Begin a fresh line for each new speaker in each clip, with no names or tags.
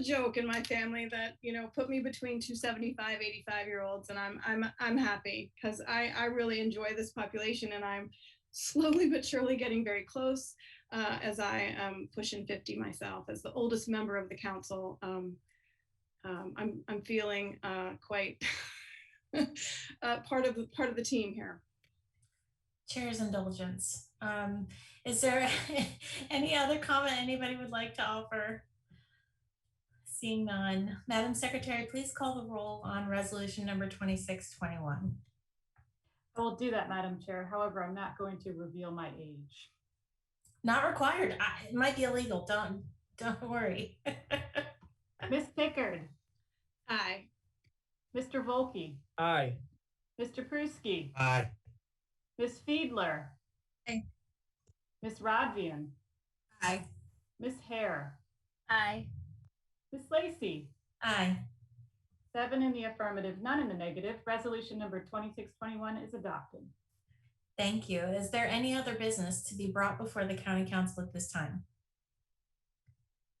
joke in my family that you know put me between two 75 85 year olds and i'm i'm i'm happy because i i really enjoy this population and i'm slowly but surely getting very close uh, as i am pushing 50 myself as the oldest member of the council um, um, i'm i'm feeling uh, quite uh, part of the part of the team here
Chair's indulgence. Um, is there any other comment anybody would like to offer? Seeing none, Madam Secretary, please call the roll on resolution number twenty-six twenty-one.
I will do that, Madam Chair. However, I'm not going to reveal my age.
Not required. I, it might be illegal. Don't, don't worry.
Ms. Pickard,
hi
Mr. Volkey,
Aye.
Mr. Pruski,
Aye.
Ms. Fiedler.
Aye.
Ms. Rodvian,
Aye.
Ms. Hare,
Aye.
Ms. Lacy.
Aye.
Seven in the affirmative, none in the negative. Resolution number 2621 is adopted.
Thank you. Is there any other business to be brought before the county council at this time?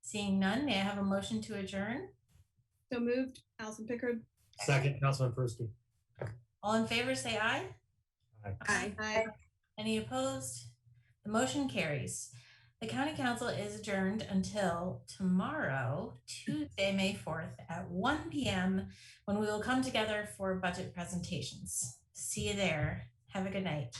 Seeing none, may I have a motion to adjourn?
so moved allison pickard
Second, Councilman Persky.
All in favor, say aye.
Aye.
Aye.
hi
Any opposed? The motion carries. The county council is adjourned until tomorrow, Tuesday, May fourth, at one PM, when we will come together for budget presentations. See you there. Have a good night.